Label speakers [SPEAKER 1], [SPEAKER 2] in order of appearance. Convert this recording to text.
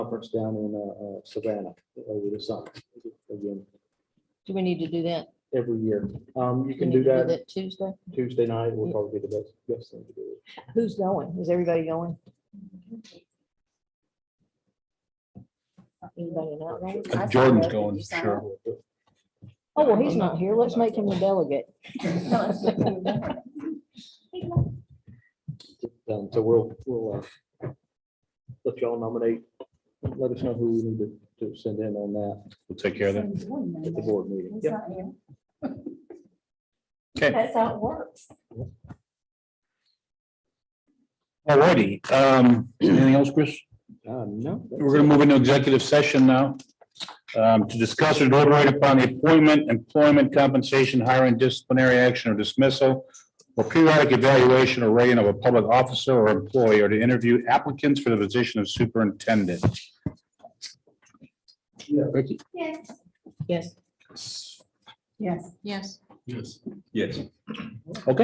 [SPEAKER 1] conference down in uh, uh, Savannah over the summer. Again,
[SPEAKER 2] Do we need to do that?
[SPEAKER 1] every year. Um, you
[SPEAKER 2] We
[SPEAKER 1] can do
[SPEAKER 2] need to
[SPEAKER 1] that
[SPEAKER 2] Tuesday?
[SPEAKER 1] Tuesday night will probably be the best, best thing to do.
[SPEAKER 2] Who's going? Is everybody going? Anybody not going?
[SPEAKER 3] Uh, Jordan's going, sure.
[SPEAKER 2] Oh, well, he's not here. Let's make him the delegate.
[SPEAKER 1] Um, so we'll, we'll, uh, let y'all nominate, let us know who we need to, to send in on that
[SPEAKER 3] We'll take care of that.
[SPEAKER 1] at the board meeting. Yep.
[SPEAKER 3] Okay,
[SPEAKER 4] That's how it works.
[SPEAKER 3] alrighty. Um, anything else, Chris?
[SPEAKER 1] Uh, no. that's
[SPEAKER 3] We're gonna move into executive session now. Um, to discuss or deliberate upon the appointment, employment, compensation, hiring, disciplinary action or dismissal. Or periodic evaluation or rating of a public officer or employee or to interview applicants for the position of superintendent. Ricky?
[SPEAKER 4] Yes.
[SPEAKER 2] Yes.
[SPEAKER 4] Yes.
[SPEAKER 2] Yes.
[SPEAKER 3] Yes.